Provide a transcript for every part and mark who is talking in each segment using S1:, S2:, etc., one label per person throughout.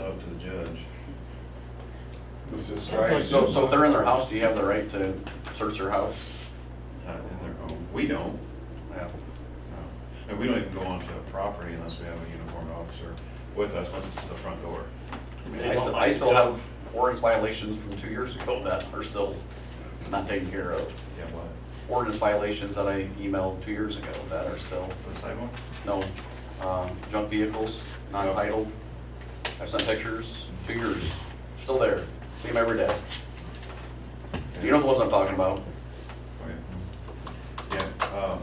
S1: up to the judge.
S2: This is right.
S3: So, so if they're in their house, do you have the right to search their house?
S1: Not in their home. We don't.
S3: Yeah.
S1: no. And we don't even go onto a property unless we have a uniformed officer with us, unless it's to the front door.
S3: I still, I still have ordinance violations from two years ago that are still not taken care of.
S1: Yeah, what?
S3: Ordinance violations that I emailed two years ago that are still,
S1: For the sidewalk?
S3: no, um, junk vehicles, non-titled. I sent pictures, two years, still there, see them every day. You know the ones I'm talking about,
S1: Okay. Yeah, um,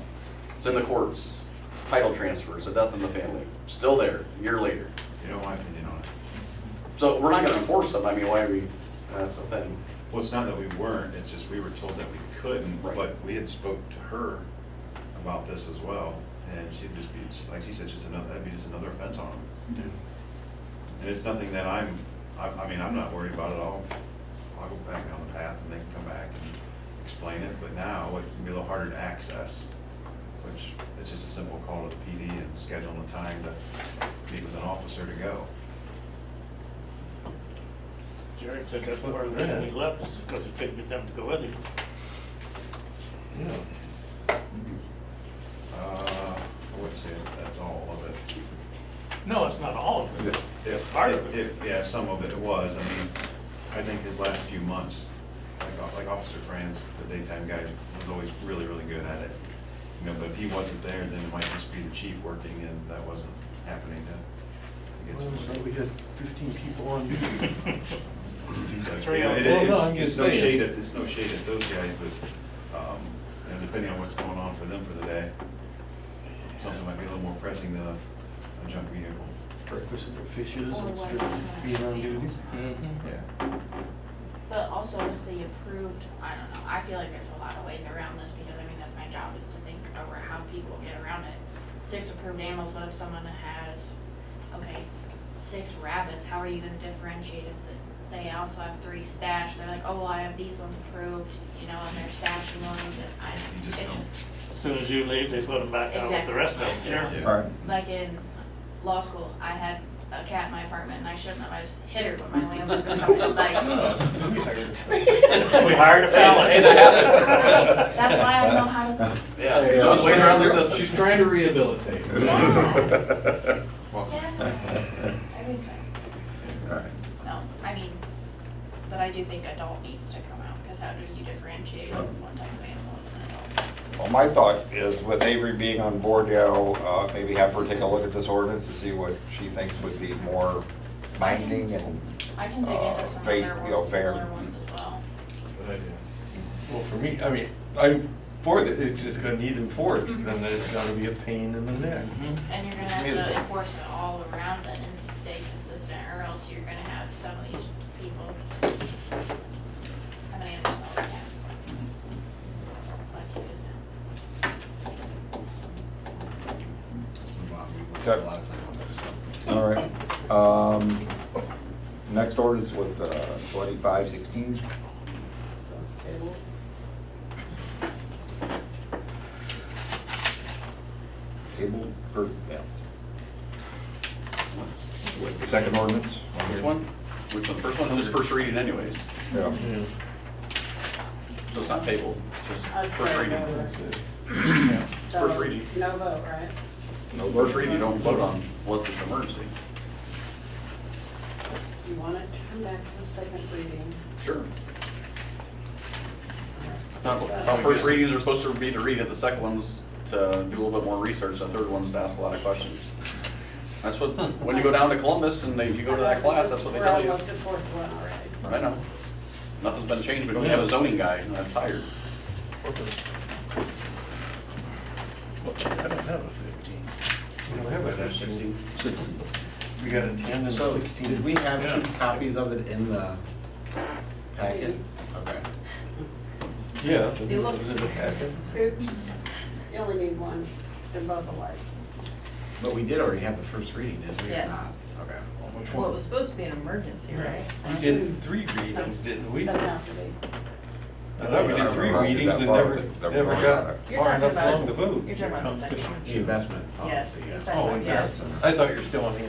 S3: it's in the courts, it's title transfer, it's a death in the family, still there, a year later.
S1: you know my opinion on it.
S3: So we're not gonna enforce them, I mean, why are we, that's the thing.
S1: Well, it's not that we weren't, it's just we were told that we couldn't,
S3: Right.
S1: but we had spoke to her about this as well, and she'd just be, like she said, just another, that'd be just another offense on them. And it's nothing that I'm, I, I mean, I'm not worried about it all. I'll go back down the path and they can come back and explain it, but now it can be a little harder to access, which it's just a simple call to the PD and scheduling a time to meet with an officer to go.
S4: Jared said that's part of the reason he left, is because it couldn't get them to go with him.
S1: Uh, I wouldn't say that that's all of it.
S4: No, it's not all of it.
S1: If-
S4: Part of it.
S1: if- Yeah, some of it was, I mean, I think his last few months, like, like Officer Franz, the daytime guy, was always really, really good at it. You know, but if he wasn't there, then it might just be the chief working and that wasn't happening to, to get
S5: Well,
S1: some.
S5: We had 15 people on duty.
S1: So,
S4: Three
S1: you know,
S4: on-
S1: it
S5: Well,
S1: is-
S5: no, I'm
S1: It's
S5: just
S1: no
S5: saying.
S1: shade at, it's no shade at those guys, but, um, you know, depending on what's going on for them for the day, something might be a little more pressing than a a junk vehicle.
S5: Breakfast and fishes
S6: Or
S5: and
S6: why
S5: still
S6: you
S5: being
S6: have
S5: on duty.
S6: sales.
S1: Mm. Mm-hmm. Yeah.
S6: But also with the approved, I don't know, I feel like there's a lot of ways around this because I mean, that's my job is to think over how people get around it. Six approved animals, what if someone has, okay, six rabbits, how are you gonna differentiate if the- they also have three stashed? They're like, oh, well, I have these ones approved, you know, and they're stashing ones and I,
S1: You
S6: it's
S1: just don't.
S6: just,
S4: As soon as you leave, they put them back out with the rest of them,
S1: Yeah.
S4: sure.
S6: like in law school, I had a cat in my apartment and I shouldn't have, I just hit her when my landlord was coming, like.
S4: We hired a felon.
S3: Hey, that
S6: Right, That's why I know how to.
S3: Yeah, those ways around the system.
S7: She's trying to rehabilitate.
S6: Yeah.
S1: Well,
S6: Yeah, everything.
S7: Alright.
S6: No, I mean, but I do think adult needs to come out, because how do you differentiate
S7: Sure.
S6: what type of animal is an adult?
S2: Well, my thought is with Avery being on board now, uh, maybe have her take a look at this ordinance to see what she thinks would be more binding and,
S6: I can dig
S2: Uh,
S6: into some
S2: faith,
S6: other
S2: you know,
S6: ones,
S2: fair.
S6: similar ones as well.
S1: Good idea.
S5: Well, for me, I mean, I'm for it, it's just gonna need enforced,
S8: Mm-hmm.
S5: and then there's gonna be a pain in the neck.
S2: Hmm.
S6: And you're gonna have to enforce it all around then and stay consistent, or else you're gonna have some of these people having animals all the time.
S2: Hmm.
S6: Like it is now.
S1: We've got a lot of time on this.
S7: All right. Um, Next ordinance was the 2516. Table for, yeah. Second ordinance?
S3: Which one? Which one? First one's just first reading anyways,
S7: Yeah.
S3: so it's not tabled, it's just first
S9: Okay.
S3: reading. It's
S9: So,
S3: First reading.
S9: No vote, right?
S3: No, first reading, you don't vote on unless it's an emergency.
S9: You want it to come back to the second reading.
S3: Sure. Uh, First readings are supposed to be to read it, the second one's to do a little bit more research, the third one's to ask a lot of questions. That's what, when you go down to Columbus and they, you go to that class, that's what they tell
S9: We're
S3: you.
S9: all up to fourth one already.
S3: I know. Nothing's been changed, we don't have a zoning guy that's hired.
S5: I don't have a 15. We don't have a 15. We got a 10 and a
S10: So,
S5: 16.
S10: did we have two copies of it in the packet? Okay.
S5: Yeah.
S9: You look-
S5: Is it a packet?
S9: Oops, you only need one, they're both alike.
S10: But we did already have the first reading, did we? or
S8: Yes.
S10: not? Okay.
S5: Which
S8: Well, it
S5: one?
S8: was supposed to be an emergency, right?
S5: We did three readings, didn't we?
S9: Doesn't
S5: I
S9: have to be.
S5: thought we did three readings and never, never got
S8: You're talking
S5: far enough
S8: about-
S5: along the vote.
S8: You're talking about the second one.
S10: The investment
S8: Yes,
S10: policy. yeah.
S8: he's
S5: Oh,
S8: talking about, yes.
S5: investment. I thought you were still on the